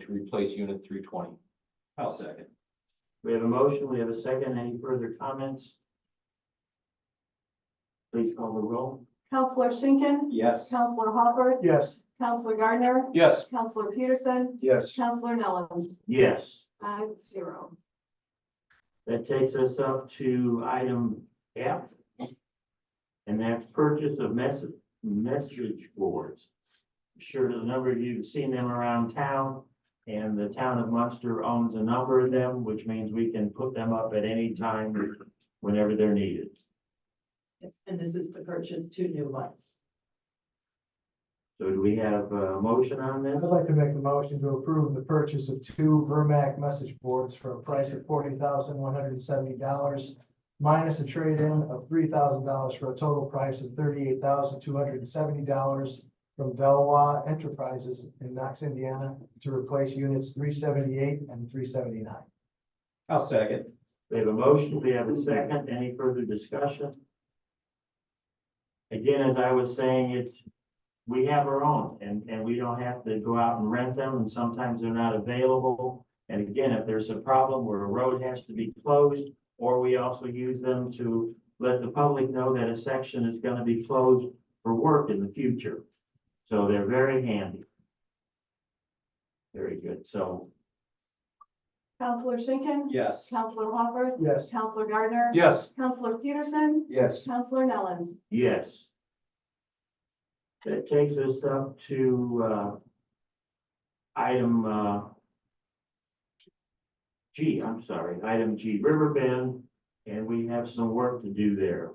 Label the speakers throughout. Speaker 1: to replace unit three twenty.
Speaker 2: I'll second.
Speaker 3: We have a motion, we have a second. Any further comments? Please call the roll.
Speaker 4: Counselor Schinkin.
Speaker 2: Yes.
Speaker 4: Counselor Hopper.
Speaker 5: Yes.
Speaker 4: Counselor Gardner.
Speaker 1: Yes.
Speaker 4: Counselor Peterson.
Speaker 5: Yes.
Speaker 4: Counselor Nellens.
Speaker 3: Yes,
Speaker 4: Five zero.
Speaker 3: that takes us up to item F. And that's purchase of message, message boards. I'm Sure, there's a number of you have seen them around town. And the town of Munster owns a number of them, which means we can put them up at any time whenever they're needed.
Speaker 6: And this is to purchase two new ones.
Speaker 3: So do we have a motion on
Speaker 5: I'd
Speaker 3: this?
Speaker 5: like to make a motion to approve the purchase of two Vermac message boards for a price of forty thousand one hundred and seventy dollars minus a trade-in of three thousand dollars for a total price of thirty-eight thousand two hundred and seventy dollars from Delwa Enterprises in Knox, Indiana, to replace units three seventy-eight and three seventy-nine.
Speaker 2: I'll second.
Speaker 3: We have a motion, we have a second, any further discussion? Again, as I was saying, it, we have our own, and, and we don't have to go out and rent them, and sometimes they're not available. And again, if there's a problem where a road has to be closed, or we also use them to let the public know that a section is gonna be closed for work in the future. So they're very handy. Very good, so,
Speaker 4: Counselor Schinkin.
Speaker 2: Yes.
Speaker 4: Counselor Hopper.
Speaker 5: Yes.
Speaker 4: Counselor Gardner.
Speaker 1: Yes.
Speaker 4: Counselor Peterson.
Speaker 1: Yes.
Speaker 4: Counselor Nellens.
Speaker 3: Yes. That takes us up to, uh, item, uh, G, I'm sorry, item G, Riverbend, and we have some work to do there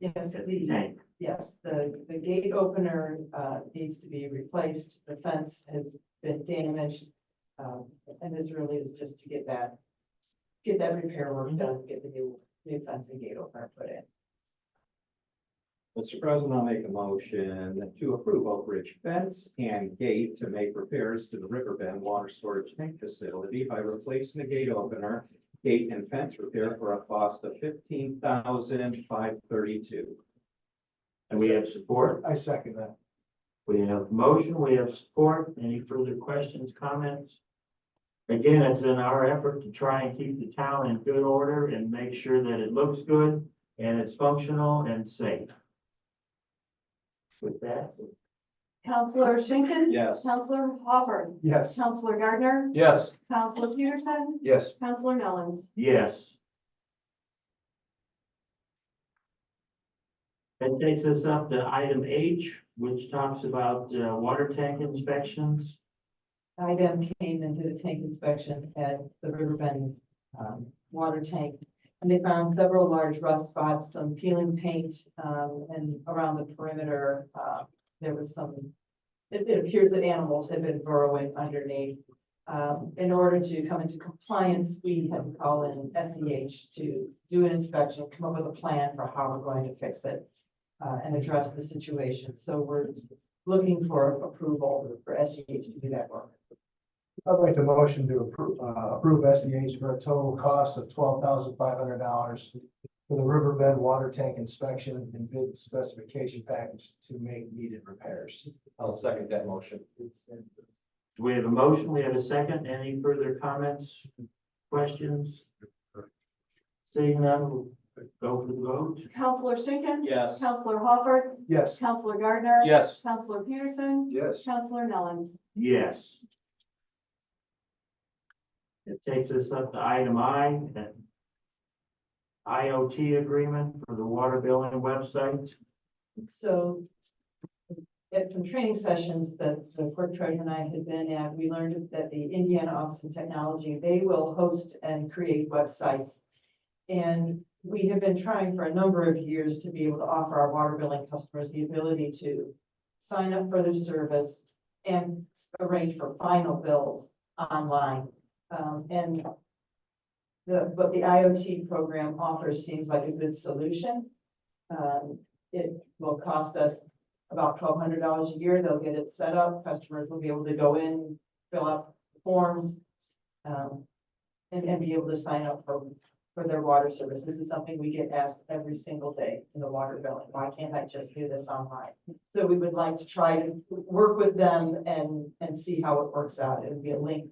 Speaker 6: Yes,
Speaker 3: at the
Speaker 6: the,
Speaker 3: tank.
Speaker 6: yes, the, the gate opener, uh, needs to be replaced. The fence has been damaged. Um, and this really is just to get that, get that repair work done, get the new, new fence and gate opener put in.
Speaker 2: Mr. President, I'll make a motion to approve Oak Ridge fence and gate to make repairs to the Riverbend Water Storage Tank Facility by replacing the gate opener, gate and fence repair for a cost of fifteen thousand five thirty-two.
Speaker 3: And we have support,
Speaker 5: I second that.
Speaker 3: we have motion, we have support, any further questions, comments? Again, it's in our effort to try and keep the town in good order and make sure that it looks good and it's functional and safe. With that,
Speaker 4: Counselor Schinkin.
Speaker 2: Yes.
Speaker 4: Counselor Hopper.
Speaker 5: Yes.
Speaker 4: Counselor Gardner.
Speaker 1: Yes.
Speaker 4: Counselor Peterson.
Speaker 1: Yes.
Speaker 4: Counselor Nellens.
Speaker 3: Yes. That takes us up to item H, which talks about uh, water tank inspections.
Speaker 6: Idem came and did a tank inspection at the Riverbend um, water tank. And they found several large rust spots, some peeling paint, um, and around the perimeter, uh, there was some. It, it appears that animals had been burrowing underneath. Um, in order to come into compliance, we had to call in SEH to do an inspection, come up with a plan for how we're going to fix it. uh, and address the situation. So we're looking for approval for SEH to do that work.
Speaker 5: I'd like to motion to approve, uh, approve SEH for a total cost of twelve thousand five hundred dollars for the riverbed water tank inspection and bid specification package to make needed repairs.
Speaker 1: I'll second that motion.
Speaker 3: Do we have a motion? We have a second. Any further comments, questions? Seeing none, we'll go for the vote.
Speaker 4: Counselor Schinkin.
Speaker 2: Yes.
Speaker 4: Counselor Hopper.
Speaker 5: Yes.
Speaker 4: Counselor Gardner.
Speaker 1: Yes.
Speaker 4: Counselor Peterson.
Speaker 1: Yes.
Speaker 4: Counselor Nellens.
Speaker 3: Yes. It takes us up to item I, that IoT agreement for the water billing website.
Speaker 6: So at some training sessions that the clerk treasurer and I had been at, we learned that the Indiana Office of Technology, they will host and create websites. And we have been trying for a number of years to be able to offer our water billing customers the ability to sign up for their service and arrange for final bills online. Um, and the, but the IoT program offers seems like a good solution. Um, it will cost us about twelve hundred dollars a year. They'll get it set up. Customers will be able to go in, fill out forms. um, and, and be able to sign up for, for their water service. This is something we get asked every single day in the water billing. Why can't I just do this online? So we would like to try to work with them and, and see how it works out. It would be a link